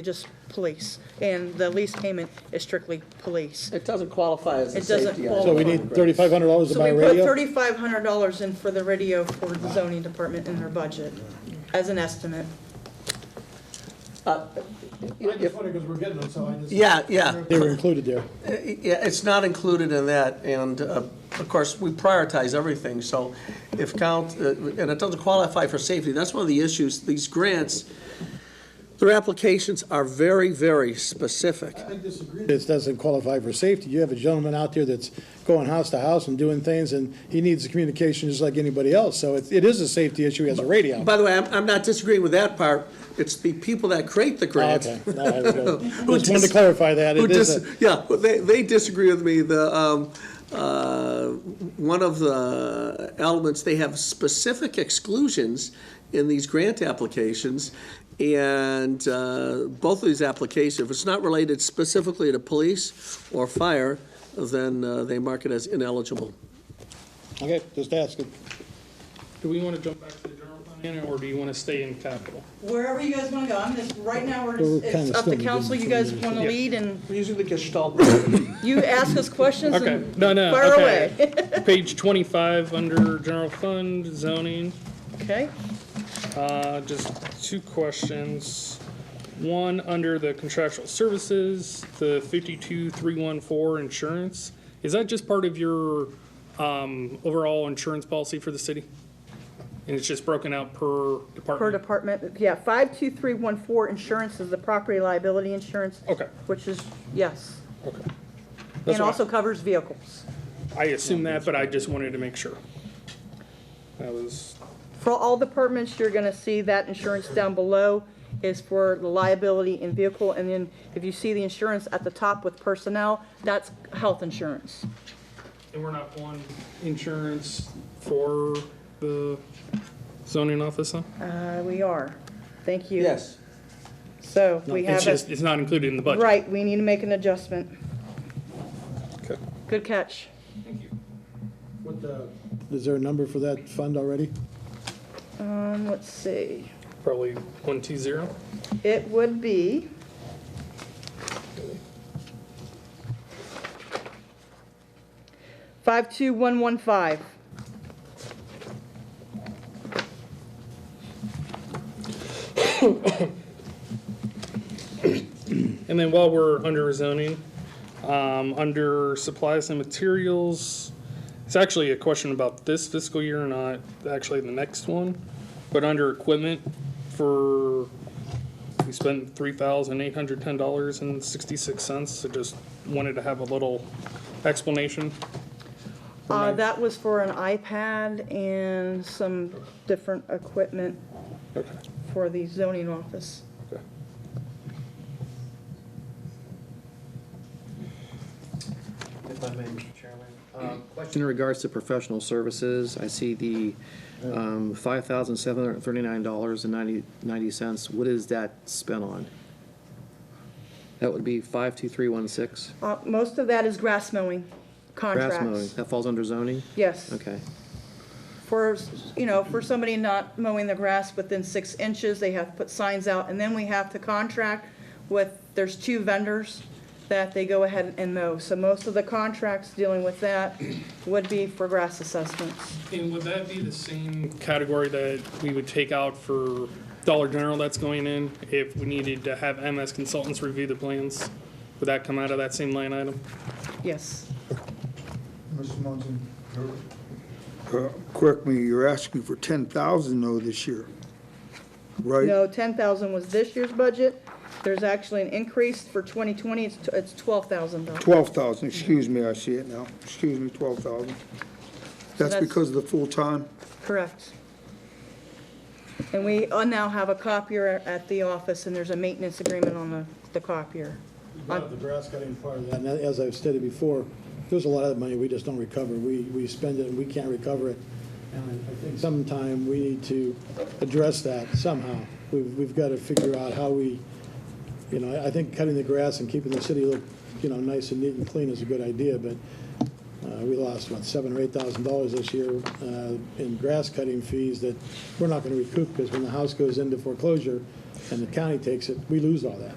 just police, and the lease payment is strictly police. It doesn't qualify as a It doesn't safety item. qualify. So we need thirty-five hundred Oh, dollars to So we buy a put radio? thirty-five hundred dollars in for the radio for the zoning department in their budget, as an estimate. I just wonder, because we're getting them, so I just. Yeah, yeah. They were included there. Yeah, it's not included in that, and uh, of course, we prioritize everything, so if count, uh, and it doesn't qualify for safety, that's one of the issues, these grants, their applications are very, very specific. I disagree. This doesn't qualify for safety. You have a gentleman out there that's going house to house and doing things, and he needs the communication just like anybody else. So it, it is a safety issue as a radio. By the way, I'm, I'm not disagreeing with that part, it's the people that create the Oh, grant. Okay, No, I was gonna- Who just wanted dis- to clarify that. who It is, dis- a- Yeah, well, they, they disagree with me. The, um, uh, one of the elements, they have specific exclusions in these grant applications. And uh, both of these applications, if it's not related specifically to police or fire, then uh, they mark it as ineligible. okay, just asking. Do we want to jump back to the general fund, Anna, or do you want to stay in capital? Wherever you guys wanna go, I'm just, right now, we're, Well, we're just- it's kinda up to still council, you guys wanna Yeah. lead, and We're using the Gestalt. you ask us questions Okay, and no, no, fire away. okay. Page twenty-five, under general fund, zoning, Okay, uh, just two questions. One, under the contractual services, the fifty-two, three, one, four, insurance, is that just part of your, um, overall insurance policy for the city? And it's just broken out per per department? department, yeah, five-two-three-one-four, insurance is the property liability insurance. Okay. Which is, yes, Okay. That's and what I- also covers vehicles, I assume that, but I just wanted to make sure. That was For all departments, you're gonna see that insurance down below is for the liability and vehicle, and then if you see the insurance at the top with personnel, that's health insurance. And we're not on insurance for the zoning office, huh? Uh, we are. Thank you. Yes. So we It's have, just, a it's not included in the budget. right, we need to make an adjustment. Okay. Good catch. With the, Is there a number for that fund already? Um, let's see. Probably one two zero. It would be. Five-two-one-one-five. And then while we're under zoning, um, under supplies and materials, it's actually a question about this fiscal year, not actually the next one. But under equipment for, we spent three thousand eight hundred ten dollars and sixty-six cents, so just wanted to have a little explanation. Uh, that was for an iPad and some different equipment Okay. for the zoning office. If I may, Mr. Chairman. Um, Question in regards to professional services. I see the um, $5,739.90. What is that spent on? That would be 52316. Uh, most of that is grass mowing Grass mowing. contracts. That falls under zoning? Yes. Okay. For, you know, for somebody not mowing the grass within six inches, they have to put signs out, and then we have to contract with, there's two vendors that they go ahead and mow. So most of the contracts dealing with that would be for grass assessments. And would that be the same category that we would take out for Dollar General that's going in? If we needed to have MS consultants review the plans, would that come out of that same line item? Yes. Mr. Munson. Uh, Correct me, you're asking for ten thousand though this year, right? No, ten thousand was this year's budget. There's actually an increase for twenty twenty, it's, it's twelve thousand dollars. Twelve thousand, excuse me, I see it now. Excuse me, twelve thousand. That's That's- because of the full-time? Correct. And we uh, now have a copier at the office, and there's a maintenance agreement on the, the copier. yeah, the grass cutting part of that. And as I've stated before, there's a lot of money we just don't recover. We, we spend it and we can't recover it. And I think sometime we need to address that somehow. We've, we've got to figure out how we, you know, I- I think cutting the grass and keeping the city look, you know, nice and neat and clean is a good idea, but uh, we lost, what, seven or eight thousand dollars this year uh, in grass cutting fees that we're not going to recoup because when the house goes into foreclosure, and the county takes it, we lose all that.